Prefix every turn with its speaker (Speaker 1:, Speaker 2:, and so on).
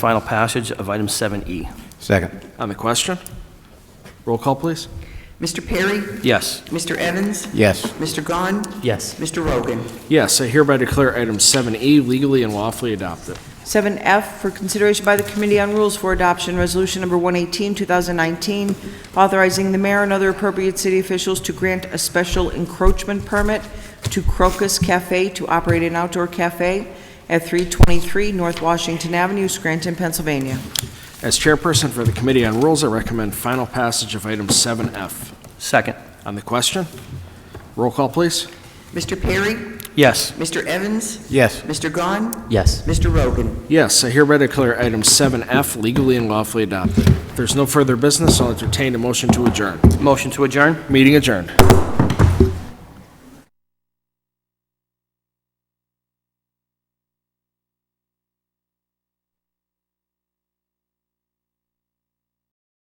Speaker 1: final passage of item E. 7E.
Speaker 2: Second.
Speaker 3: On the question? Roll call, please.
Speaker 4: Mr. Perry?
Speaker 1: Yes.
Speaker 4: Mr. Evans?
Speaker 2: Yes.
Speaker 4: Mr. Gahn?
Speaker 5: Yes.
Speaker 4: Mr. Rogan?
Speaker 3: Yes, I hereby declare item 7E legally and lawfully adopted.
Speaker 6: 7F for consideration by the Committee on Rules for Adoption, Resolution Number 118, 2019, authorizing the mayor and other appropriate city officials to grant a special encroachment permit to Crocus Cafe to operate an outdoor cafe at 323 North Washington Avenue, Scranton, Pennsylvania.
Speaker 3: As chairperson for the Committee on Rules, I recommend final passage of item 7F.
Speaker 1: Second.
Speaker 3: On the question? Roll call, please.
Speaker 4: Mr. Perry?
Speaker 1: Yes.
Speaker 4: Mr. Evans?
Speaker 2: Yes.
Speaker 4: Mr. Gahn?
Speaker 5: Yes.
Speaker 4: Mr. Rogan?
Speaker 3: Yes, I hereby declare item 7F legally and lawfully adopted. If there's no further business, I'll entertain a motion to adjourn.
Speaker 1: Motion to adjourn?
Speaker 3: Meeting adjourned.